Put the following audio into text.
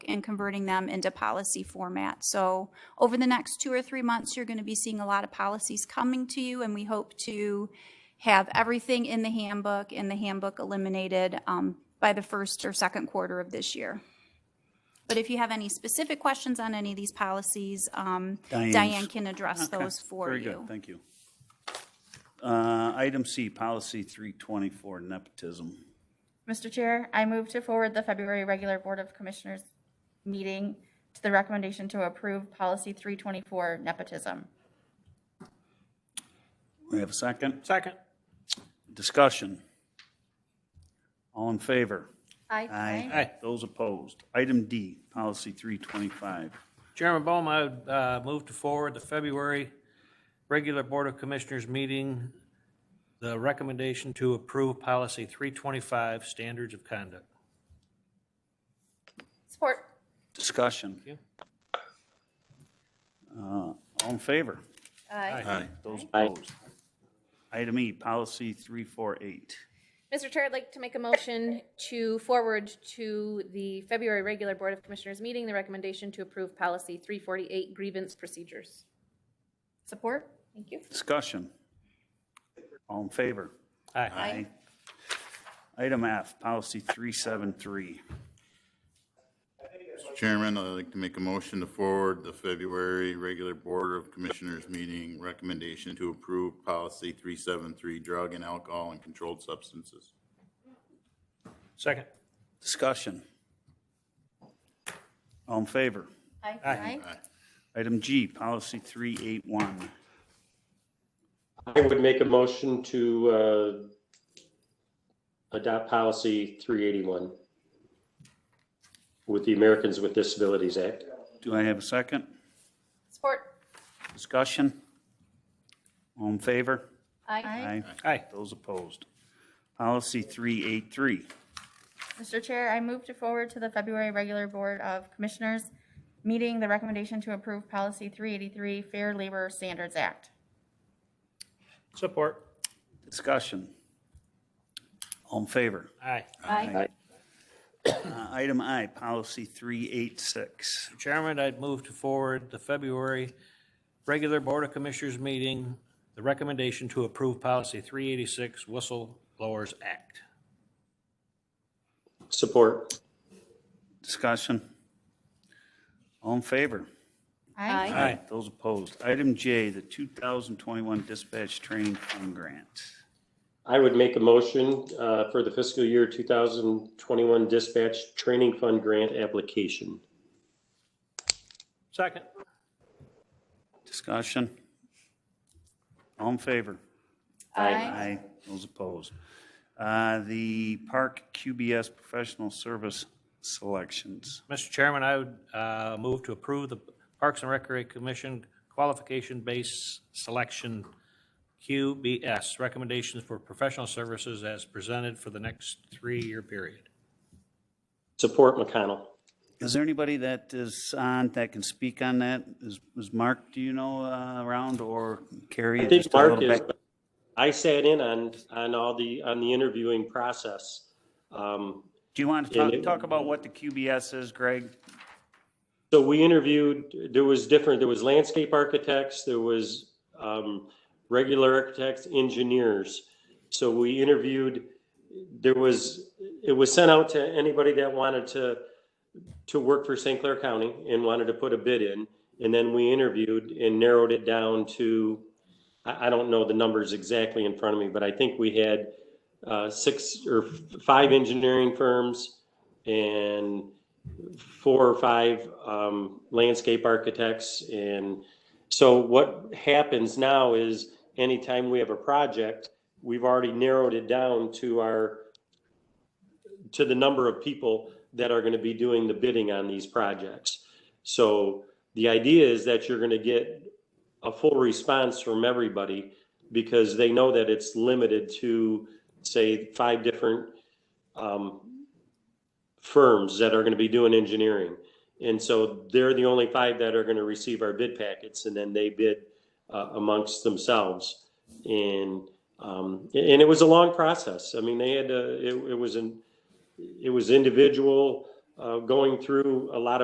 and converting them into policy format. So over the next two or three months, you're going to be seeing a lot of policies coming to you, and we hope to have everything in the handbook and the handbook eliminated um, by the first or second quarter of this year. But if you have any specific questions on any of these policies, um, Diane's- Diane can address those for Very good, you. thank you. Uh, Item C, Policy 324, nepotism. Mr. Chair, I move to forward the February regular Board of Commissioners meeting to the recommendation to approve policy 324 nepotism. We have a second? Second. Discussion. All in favor? Aye. Aye. Those opposed? Item D, Policy 325. Chairman Bohm, I would uh, move to forward the February regular Board of Commissioners meeting, the recommendation to approve policy 325, standards of conduct. Support. Discussion. Thank Uh, All in favor? Aye. Those opposed? Item E, Policy 348. Mr. Chair, I'd like to make a motion to forward to the February regular Board of Commissioners meeting the recommendation to approve policy 348 grievance procedures. Support. Thank you. Discussion. All in favor? Aye. Item F, Policy 373. Mr. Chairman, I'd like to make a motion to forward the February regular Board of Commissioners meeting recommendation to approve policy 373, drug and alcohol and controlled substances. Second. Discussion. All in favor? Aye. Aye. Item G, Policy 381. I would make a motion to uh, adopt policy 381 with the Americans with Disabilities Act. Do I have a second? Support. Discussion. All in favor? Aye. Aye. Those opposed. Policy 383. Mr. Chair, I move to forward to the February regular Board of Commissioners meeting the recommendation to approve policy 383 Fair Labor Standards Act. Support. Discussion. All in favor? Aye. Aye. Uh, Item I, Policy 386. Chairman, I'd move to forward the February regular Board of Commissioners meeting, the recommendation to approve policy 386, whistleblowers act. Support. Discussion. All in favor? Aye. Aye. Those opposed. Item J, the 2021 Dispatch Training Fund Grant. I would make a motion uh, for the fiscal year 2021 dispatch training fund grant application. Second. Discussion. All in favor? Aye. Aye. Those opposed. Uh, The Park QBS Professional Service Selections. Mr. Chairman, I would uh, move to approve the Parks and Recreation Commission Qualification-Based Selection QBS recommendations for professional services as presented for the next three-year period. Support McConnell. Is there anybody that is on, that can speak on that? Is was Mark, do you know, uh, around, or Carrie? I think Just a little Mark is, back- I sat in on, on all the, on the interviewing process. Um, Do you want to Yeah, talk- they- talk about what the QBS is, Greg? So we interviewed, there was different, there was landscape architects, there was um, regular architects, engineers. So we interviewed, there was, it was sent out to anybody that wanted to, to work for St. Clair County and wanted to put a bid in. And then we interviewed and narrowed it down to, I, I don't know the numbers exactly in front of me, but I think we had uh, six or f- five engineering firms and four or five um, landscape architects. And so what happens now is anytime we have a project, we've already narrowed it down to our, to the number of people that are going to be doing the bidding on these projects. So the idea is that you're going to get a full response from everybody because they know that it's limited to, say, five different um, firms that are going to be doing engineering. And so they're the only five that are going to receive our bid packets and then they bid uh, amongst themselves. And, um, and it was a long process. I mean, they had to, it, it was an, it was individual, uh, going through a lot of.